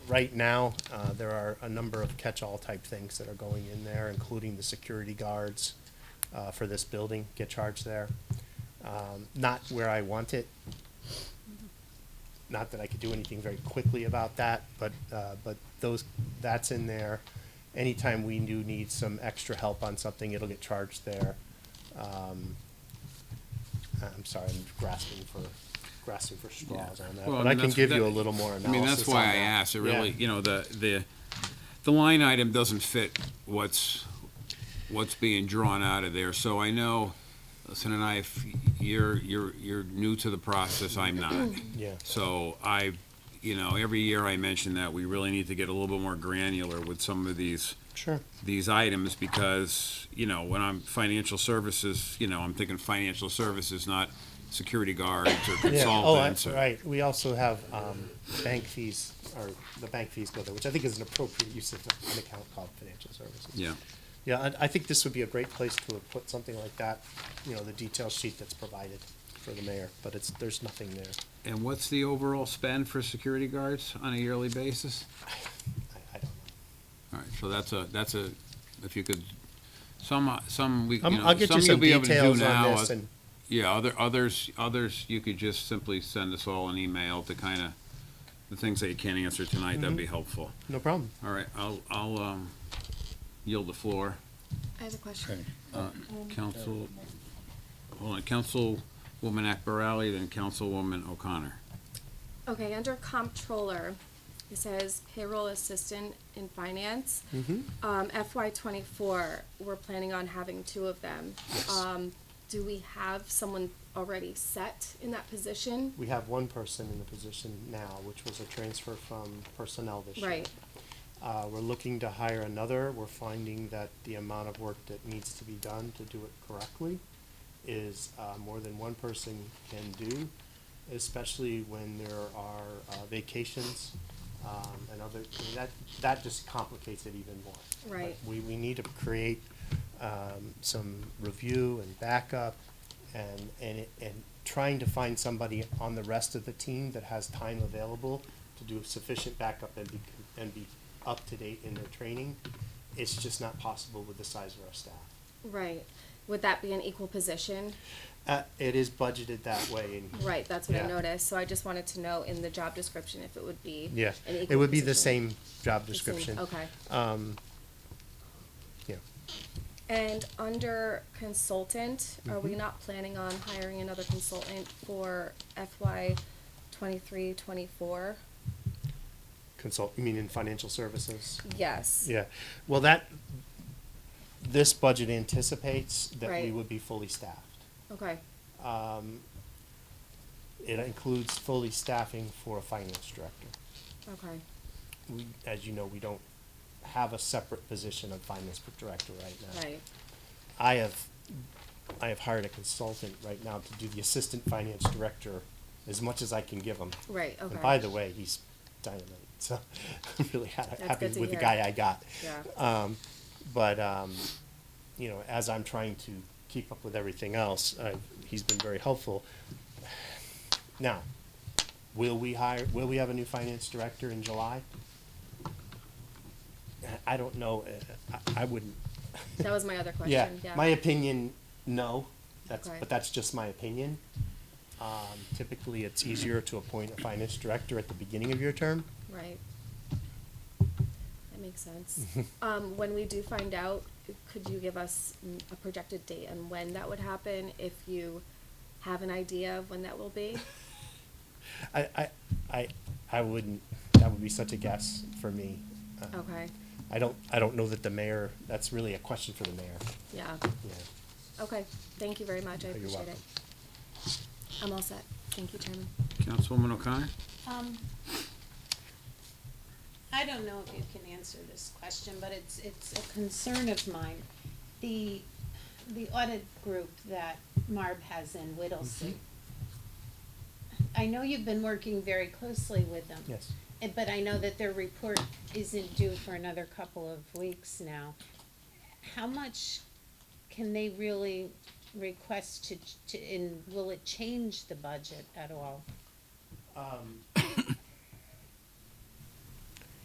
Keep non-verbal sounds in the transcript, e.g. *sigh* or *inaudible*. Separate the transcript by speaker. Speaker 1: right now, uh, there are a number of catch-all type things that are going in there, including the security guards uh, for this building get charged there. Um, Not where I want it. Not that I could do anything very quickly about that, but, uh, but those, that's in there. Anytime we do need some extra help on something, it'll get charged there. Um, I'm sorry, I'm grasping for, grasping for straws on that,
Speaker 2: Well,
Speaker 1: but
Speaker 2: I
Speaker 1: I can
Speaker 2: mean, that's-
Speaker 1: give you
Speaker 2: that-
Speaker 1: a little more
Speaker 2: I mean,
Speaker 1: analysis
Speaker 2: that's
Speaker 1: on
Speaker 2: why I
Speaker 1: that.
Speaker 2: asked, it
Speaker 1: Yeah.
Speaker 2: really, you know, the, the, the line item doesn't fit what's, what's being drawn out of there, so I know, listen, and I, if you're, you're, you're new to the process, I'm not.
Speaker 1: Yeah.
Speaker 2: So I, you know, every year I mention that we really need to get a little bit more granular with some of these,
Speaker 1: Sure.
Speaker 2: these items, because, you know, when I'm financial services, you know, I'm thinking financial services, not security guards or
Speaker 1: Yeah. Oh,
Speaker 2: consultants.
Speaker 1: that's
Speaker 2: or-
Speaker 1: right. We also have um, bank fees, or the bank fees go there, which I think is an appropriate use of an account called financial services.
Speaker 2: Yeah.
Speaker 1: Yeah, I, I think this would be a great place to have put something like that, you know, the detail sheet that's provided for the mayor, but it's, there's nothing there.
Speaker 2: And what's the overall spend for security guards on a yearly basis?
Speaker 1: I, I don't know.
Speaker 2: All right, so that's a, that's a, if you could, some, some, we, you
Speaker 1: Um,
Speaker 2: know,
Speaker 1: I'll get you
Speaker 2: you'll
Speaker 1: some
Speaker 2: be able to do
Speaker 1: details on
Speaker 2: now,
Speaker 1: this
Speaker 2: uh,
Speaker 1: and,
Speaker 2: Yeah, other, others, others, you could just simply send us all an email to kind of, the things that you can't answer tonight, that'd
Speaker 1: Mm-hmm.
Speaker 2: be helpful.
Speaker 1: no problem.
Speaker 2: All right, I'll, I'll, um, yield the floor.
Speaker 3: I have a question.
Speaker 2: Council, hold on, Councilwoman Akbarali, then Councilwoman O'Connor.
Speaker 3: Okay, under comptroller, it says payroll assistant in finance.
Speaker 1: Mm-hmm.
Speaker 3: Um, FY twenty-four, we're planning on having two of them. Um, do we have someone already set in that position?
Speaker 1: We have one person in the position now, which was a transfer from personnel this year.
Speaker 3: Right,
Speaker 1: Uh, we're looking to hire another. We're finding that the amount of work that needs to be done to do it correctly is, uh, more than one person can do, especially when there are, uh, vacations, um, and other, I mean, that, that just complicates it even more.
Speaker 3: Right.
Speaker 1: We, we need to create, um, some review and backup and, and, it- and trying to find somebody on the rest of the team that has time available to do sufficient backup and be, and be up to date in their training, it's just not possible with the size of our staff.
Speaker 3: right. Would that be an equal position?
Speaker 1: Uh, it is budgeted that way in here.
Speaker 3: Right, that's what
Speaker 1: Yeah.
Speaker 3: I noticed, so I just wanted to know in the job description if it would be
Speaker 1: Yeah,
Speaker 3: an
Speaker 1: it
Speaker 3: equal
Speaker 1: would be the
Speaker 3: position.
Speaker 1: same job
Speaker 3: The same-
Speaker 1: description.
Speaker 3: Okay.
Speaker 1: Yeah.
Speaker 3: And under consultant, are
Speaker 1: Mm-hmm.
Speaker 3: we not planning on hiring another consultant for FY twenty-three, twenty-four?
Speaker 1: Consult, you mean in financial services?
Speaker 3: Yes.
Speaker 1: Yeah, well, that, this budget anticipates that we
Speaker 3: Right.
Speaker 1: would be fully staffed.
Speaker 3: Okay,
Speaker 1: It includes fully staffing for a finance director.
Speaker 3: okay,
Speaker 1: We, as you know, we don't have a separate position of finance director right now.
Speaker 3: right,
Speaker 1: I have, I have hired a consultant right now to do the assistant finance director as much as I can give him.
Speaker 3: right, okay.
Speaker 1: And by the way, he's dynamite, so *laughs* I'm really ha- happy
Speaker 3: good to
Speaker 1: with the
Speaker 3: hear.
Speaker 1: guy I got.
Speaker 3: Yeah,
Speaker 1: uh, But, um, you know, as I'm trying to keep up with everything else, uh, he's been very helpful. Now, will we hire, will we have a new finance director in July? I don't know, uh, I, I wouldn't,
Speaker 3: that was my other
Speaker 1: yeah,
Speaker 3: question, yeah.
Speaker 1: my opinion, no, that's,
Speaker 3: Okay.
Speaker 1: but that's just my opinion. Um, typically, it's easier to appoint a finance director at the beginning of your term.
Speaker 3: Right. That
Speaker 1: *laughs*
Speaker 3: makes sense. Um, when we do find out, could you give us mm, a projected date and when that would happen, if you have an idea of when that
Speaker 1: *laughs*
Speaker 3: will be?
Speaker 1: I, I, I, I wouldn't, that would be such a guess for me. Uh,
Speaker 3: Okay,
Speaker 1: I don't, I don't know that the mayor, that's really a question for the mayor,
Speaker 3: yeah.
Speaker 1: yeah.
Speaker 3: Okay, thank you very much, I
Speaker 1: You're
Speaker 3: appreciate
Speaker 1: welcome.
Speaker 3: it. I'm all set, thank you, Chairman.
Speaker 2: Councilwoman O'Connor?
Speaker 4: Um, I don't know if you can answer this question, but it's, it's a concern of mine. The, the audit group that Marb has in Whittlesey. I know you've been working very closely with them.
Speaker 1: Yes.
Speaker 4: Eh, But I know that their report isn't due for another couple of weeks now. How much can they really request to, ch- to, and will it change the budget at all?